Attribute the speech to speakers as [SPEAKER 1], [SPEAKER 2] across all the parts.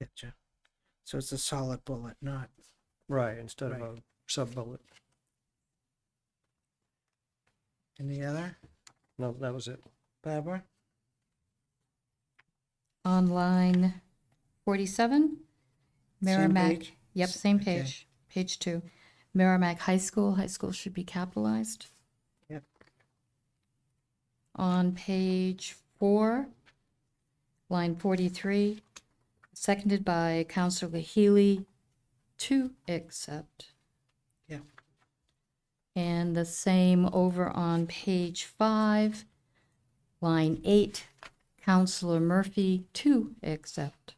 [SPEAKER 1] Gotcha. So it's a solid bullet, not
[SPEAKER 2] Right, instead of a
[SPEAKER 1] Right.
[SPEAKER 2] sub-bullet.
[SPEAKER 1] any other.
[SPEAKER 2] No, that was it.
[SPEAKER 1] Barbara?
[SPEAKER 3] on line 47, Merrimack.
[SPEAKER 1] page?
[SPEAKER 3] Yep,
[SPEAKER 1] S-
[SPEAKER 3] same
[SPEAKER 1] okay.
[SPEAKER 3] page, page two. Merrimack High School, high school should be capitalized.
[SPEAKER 1] Yep.
[SPEAKER 3] On page four, line 43, seconded by Counselor Healy, to accept.
[SPEAKER 1] Yeah.
[SPEAKER 3] And the same over on page five, line eight, Counselor Murphy, to accept.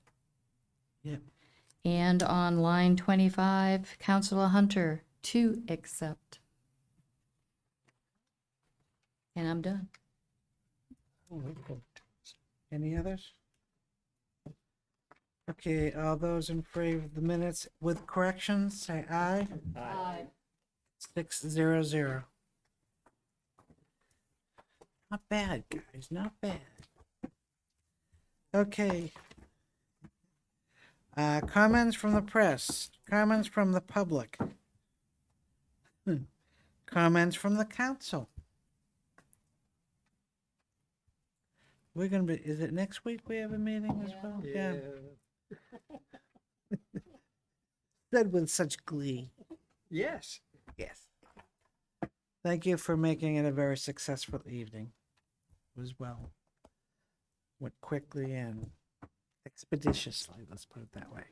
[SPEAKER 1] Yep.
[SPEAKER 3] And on line 25, Counselor Hunter, to accept. And I'm done.
[SPEAKER 1] Oh, Any others? Okay, all those in favor of the minutes with corrections, say aye.
[SPEAKER 3] Aye.
[SPEAKER 1] Six zero zero. Not bad, guys, not bad. Okay. Uh, comments from the press, comments from the public. Hmm. Comments from the council. We're gonna be, is it next week we have a meeting as well? Said with such glee.
[SPEAKER 2] Yes.
[SPEAKER 1] Yes. Thank you for making it a very successful evening as well. Went quickly and expeditiously, let's put it that way.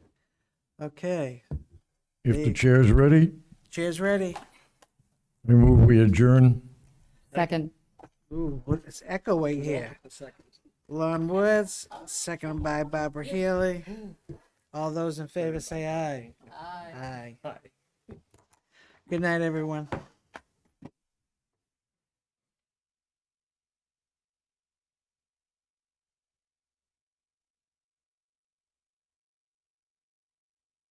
[SPEAKER 1] Okay,
[SPEAKER 4] If the
[SPEAKER 1] Hey.
[SPEAKER 4] chair's ready,
[SPEAKER 1] cheers ready.
[SPEAKER 4] we move, we adjourn.
[SPEAKER 3] Second.
[SPEAKER 1] Ooh, what is echoing here? Lon Woods, second by Barbara Healy. All those in favor say aye. Aye. Aye. Good night, everyone.